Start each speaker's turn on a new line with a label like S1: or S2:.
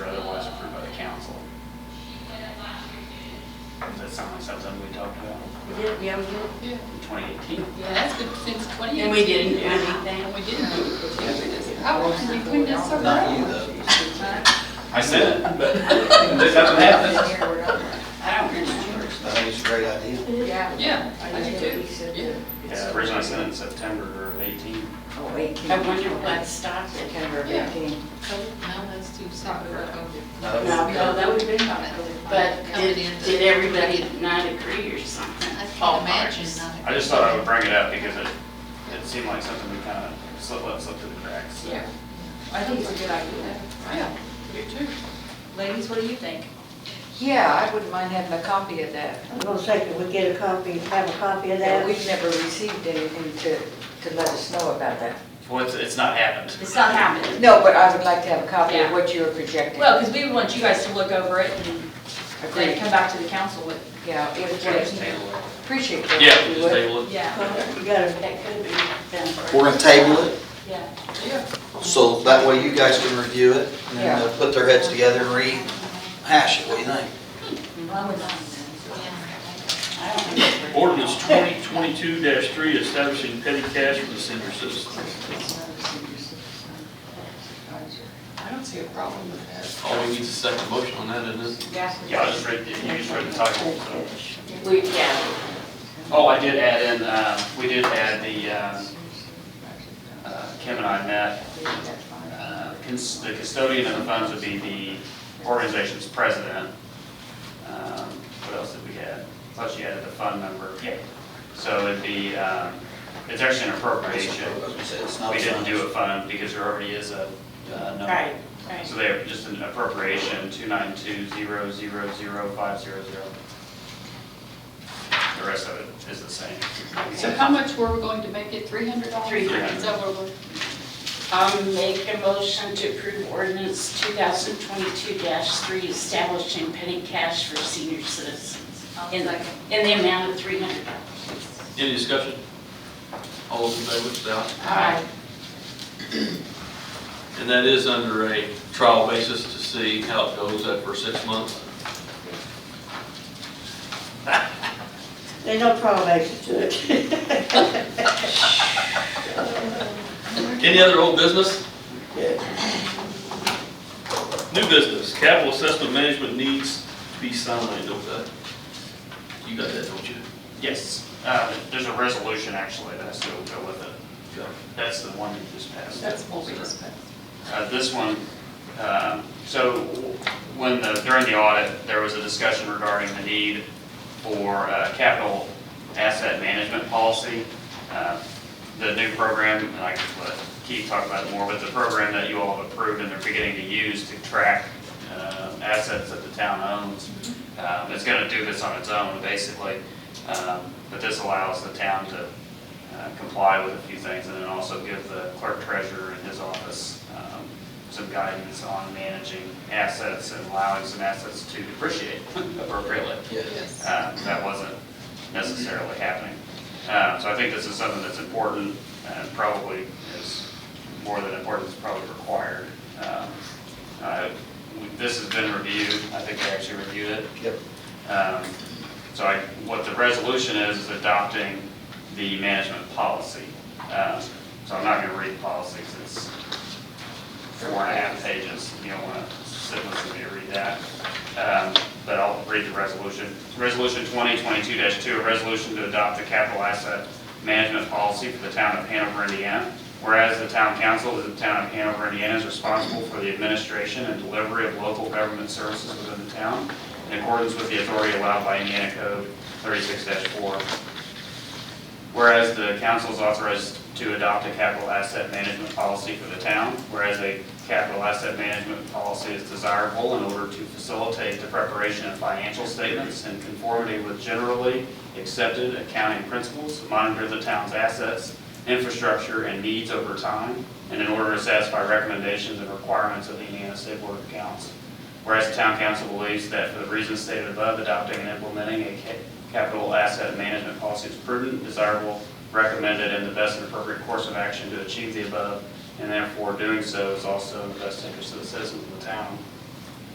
S1: that's something, something we talked about
S2: We did, yeah, we did.
S3: Yeah,
S1: in 2018.
S3: yeah, that's good since 2018.
S2: And we didn't do
S3: And
S2: anything.
S3: we didn't do it. How often you clean this up?
S4: Not you though.
S3: Huh?
S1: I said, it, but this doesn't happen.
S2: I don't remember.
S4: I think it's a great idea.
S2: Yeah.
S3: Yeah, I do
S2: think
S3: too.
S2: we said
S3: Yeah.
S2: that.
S1: Yeah, originally I said in September of 18.
S2: Oh, wait. I wonder why it stopped at September
S3: Yeah.
S2: 18.
S3: Now that's too sour.
S4: No.
S2: No, no, that would have been fine. But
S3: Coming
S2: did,
S3: in.
S2: did everybody not agree or something?
S3: I
S2: All
S3: can imagine.
S2: parties.
S3: not-
S1: I just thought I would bring it up because it, it seemed like something we kind of slipped, let slip through the cracks. so.
S3: Yeah.
S5: I think it's a good idea.
S3: Yeah, you too.
S5: Ladies, what do you think?
S6: Yeah, I wouldn't mind having a copy of that.
S7: I'm gonna say, can we get a copy, have a copy of
S6: Yeah,
S7: that?
S6: we've never received anything to, to let us know about that.
S1: Well, it's, it's not happened.
S5: It's not happening.
S6: No, but I would like to have a copy of
S5: Yeah.
S6: what you were projecting.
S5: Well, because we want you guys to look over it and then
S6: Agreed.
S5: come back to the council with,
S6: Yeah, if
S1: So just
S6: we
S1: table it.
S6: appreciate that.
S1: Yeah,
S6: if
S1: we
S6: you
S1: just
S6: would.
S1: table it.
S5: yeah,
S7: Well, You gotta,
S2: That could be done first.
S4: We're gonna table it,
S5: yeah.
S3: Yeah.
S4: so that way you guys can review it and then they'll put their heads together and rehash it, what do you think?
S5: Well, I would not.
S2: I don't think it's-
S8: Ordinance 2022-3 establishing petty cash for the senior citizens.
S3: I don't see a problem with that.
S8: All we need is a second motion on that, isn't it?
S1: Yeah, I just read, the- you just read the title, so.
S2: We, yeah,
S1: Oh, I did add in, um, we did add the, um, uh, Kim and I met, uh, cons- the custodian of the funds would be the organization's president. Um, What else did we add? Plus you added the fund member. Yeah. So it'd be, um, it's actually an appropriation.
S4: I was gonna say, it's not
S1: We didn't do a
S4: signed.
S1: fund because there already is a uh, number.
S2: right, right.
S1: So they're just an appropriation, 292000500. The rest of it is the same.
S3: So how much were we going to make it? $300?
S2: $300.
S3: Is that what we're?
S2: I'll make a motion to approve ordinance 2022-3 establishing petty cash for senior citizens
S3: I'll
S2: in
S3: second.
S2: in the amount of $300.
S8: Any discussion? All those in favor, say aye.
S2: Aye.
S8: And that is under a trial basis to see how it goes after six months.
S7: there's no probation to it.
S8: Any other old business? New business, capital assessment management needs to be signed, okay? You got that, don't you?
S1: Yes, uh, there's a resolution actually that has to go with it.
S8: Okay.
S1: That's the one you just passed.
S3: That's what we just passed.
S1: Uh, This one, um, so when, the- during the audit, there was a discussion regarding the need for uh, capital asset management policy. Uh, The new program, and I can let Keith talk about it more, but the program that you all have approved and they're beginning to use to track uh, assets that the town owns, um, it's going to do this on its own, basically. Um, But this allows the town to uh, comply with a few things, and then also give the clerk treasurer and his office um, some guidance on managing assets and allowing some assets to depreciate appropriately.
S4: Yeah.
S1: Uh, That wasn't necessarily happening. Uh, So I think this is something that's important, and probably is more than important, it's probably required. Um, uh, we- This has been reviewed, I think I actually reviewed it,
S4: Yep.
S1: um, So I, what the resolution is, is adopting the management policy. Um, So I'm not going to read the policy 'cause it's four and a half pages. You don't want to sit with me to read that. Um, But I'll read the resolution. Resolution 2022-2, a resolution to adopt the capital asset management policy for the town of Hanover, Indiana. Whereas the town council of the town of Hanover, Indiana is responsible for the administration and delivery of local government services within the town in accordance with the authority allowed by Indiana Code 36-4. Whereas the council is authorized to adopt a capital asset management policy for the town, whereas a capital asset management policy is desirable in order to facilitate the preparation of financial statements in conformity with generally accepted accounting principles, monitor the town's assets, infrastructure, and needs over time, and in order to satisfy recommendations and requirements of the E Indiana State Board of Accounts. Whereas the town council believes that for the reasons stated above, adopting and implementing a ca- capital asset management policy is prudent, desirable, recommended, and the best and appropriate course of action to achieve the above, and therefore doing so is also in the best interest of the citizens of the town.